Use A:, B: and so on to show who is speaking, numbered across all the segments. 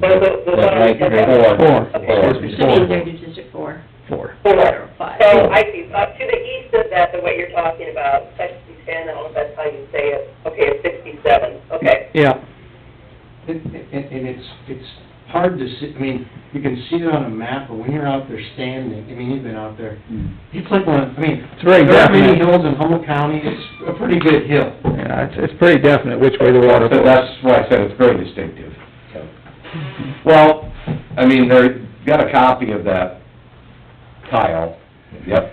A: But the, the
B: That
A: letter
B: makes
A: is
B: it four.
C: Four.
B: Four.
D: Should be
C: Excuse me, four.
D: there to District Four,
C: Four.
D: or
A: four.
D: five.
A: So I see, up to the east of that, the way you're talking about, section ten, I don't know if that's how you say it, okay, it's sixty-seven, okay.
C: Yeah,
E: And, and and it's, it's hard to see, I mean, you can see it on a map, but when you're out there standing, I mean, you've been out there, it's like one, I mean,
C: It's very
E: there aren't many
C: definite.
E: hills in Humboldt County, it's a pretty good hill.
C: yeah, it's, it's pretty definite which way the water
B: So
C: flows.
B: that's why I said it's very distinctive. Well, I mean, they got a copy of that tile, yep.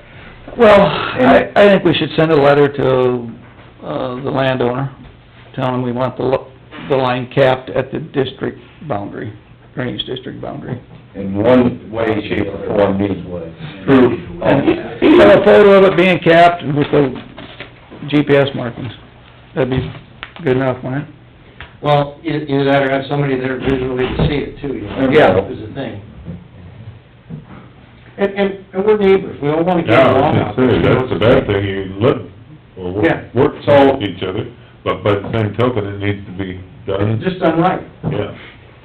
C: Well, I, I think we should send a letter to, uh, the landowner, telling him we want the, lo- the line capped at the district boundary, drainage district boundary.
B: in one way, shape, or form, needs proof.
C: And either a photo of it being capped with the GPS markings, that'd be good enough, wouldn't it?
E: Well, e- either that or have somebody there visually to see it too, you know?
B: Yeah.
E: Is the thing. And, and, and we're neighbors, we all wanna get
F: Yeah,
E: along.
F: I was gonna say, that's the bad thing, you live or work,
E: Yeah.
F: work
B: So-
F: with each other, but by the same token, it needs to be done,
E: Just done right.
F: yeah,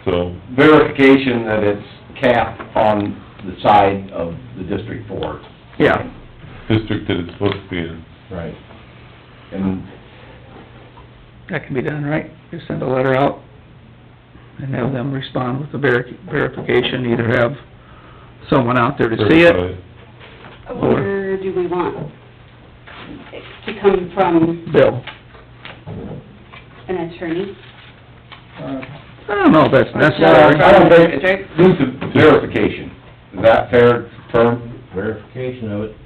F: so,
B: Verification that it's capped on the side of the District Four.
C: Yeah.
F: district that it's supposed to be in.
B: Right. And
C: That can be done, right? Just send a letter out and have them respond with the veri- verification, either have someone out there to see it.
F: certified.
D: Where do we want it to come from
C: Bill,
D: an attorney?
C: I don't know if that's necessary.
B: I don't think, needs a verification, is that fair term?
G: verification of it.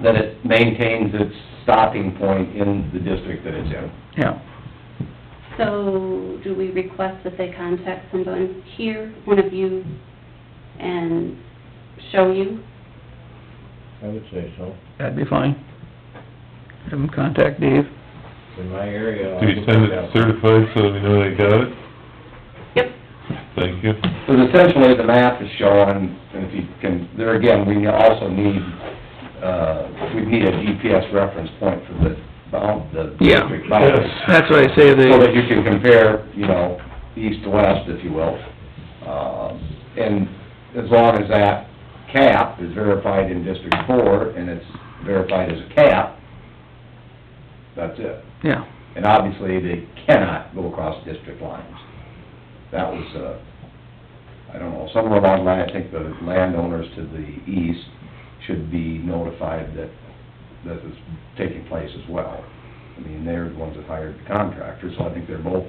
B: That it maintains its stopping point in the district that it's in.
C: Yeah,
D: So do we request that they contact someone here, one of you, and show you?
G: I would say so.
C: that'd be fine. Have them contact Dave.
G: In my area. I
F: Do you
G: looked
F: send it
G: at that.
F: certified so we know they got it?
D: Yep.
F: Thank you.
B: Because essentially, the map is showing, and if you can, there again, we also need, uh, we need a GPS reference point for the, bound- the
C: Yeah.
B: district boundary.
C: That's what I say,
B: So that
C: they,
B: you can compare, you know, east to west, if you will. Uh, And as long as that cap is verified in District Four, and it's verified as a cap, that's it.
C: yeah,
B: And obviously, they cannot go across district lines. That was, uh, I don't know, somewhere along the line, I think the landowners to the east should be notified that this is taking place as well. I mean, they're the ones that hired the contractor, so I think they're both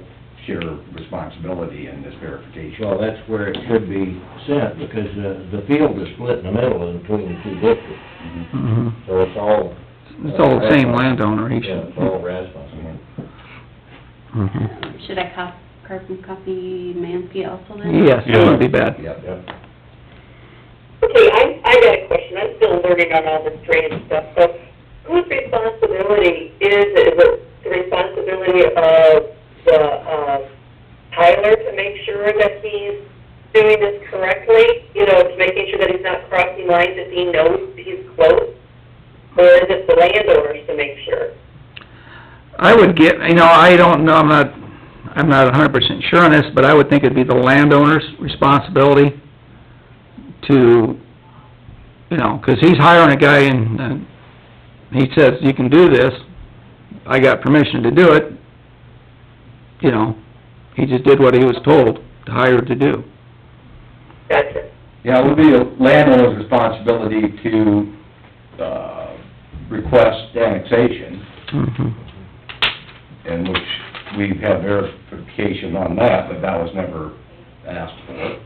B: share responsibility in this verification.
G: Well, that's where it should be sent, because uh, the, the field is split in the middle in between the two districts,
C: mhm.
G: so it's all.
C: It's all the same landowner, he
G: Yeah,
C: should.
G: it's all Rasmus.
C: Mhm.
D: Should I cop, carbon copy Mansky also then?
C: Yes, that wouldn't be bad.
B: Yep.
G: Yep.
A: Okay, I, I got a question, I'm still learning on all this drainage stuff, so whose responsibility is, it? Is it the responsibility of the, um, Tyler to make sure that he's doing this correctly? You know, to making sure that he's not crossing lines if he knows he's close? Or is it the landowners to make sure?
C: I would get, you know, I don't know, I'm not, I'm not a hundred percent sure on this, but I would think it'd be the landowner's responsibility to, you know, 'cause he's hiring a guy and, and he says, you can do this, I got permission to do it, you know, he just did what he was told, to hire to do.
A: Gotcha.
B: Yeah, it would be a landowner's responsibility to, uh, request annexation.
C: Mm-hmm.
B: in which we've had verification on that, but that was never asked for.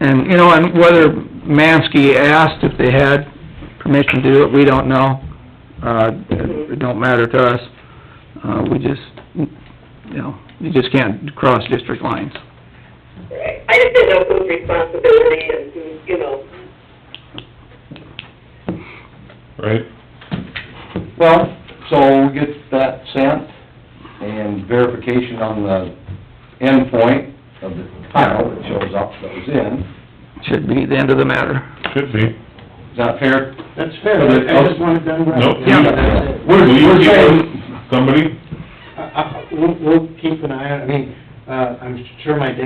C: And, you know, and whether Mansky asked if they had permission to do it, we don't know. Uh, it don't matter to us. Uh, we just, you know, you just can't cross district lines.
A: Right. I just didn't know whose responsibility and who, you know,
F: Right?
B: Well, so we get that sent and verification on the end point of the tile that shows up that was in.
C: Should be the end of the matter.
F: Should be.
B: Is that fair?
E: That's fair,
B: So that-
E: I just want it done right.
F: Nope.
C: Yeah.
E: That's it.
B: We're,
F: Will you
B: we're
F: keep
B: saying,
F: Somebody?
E: I- I- We'll, we'll keep an eye on, I mean, uh, I'm sure my dad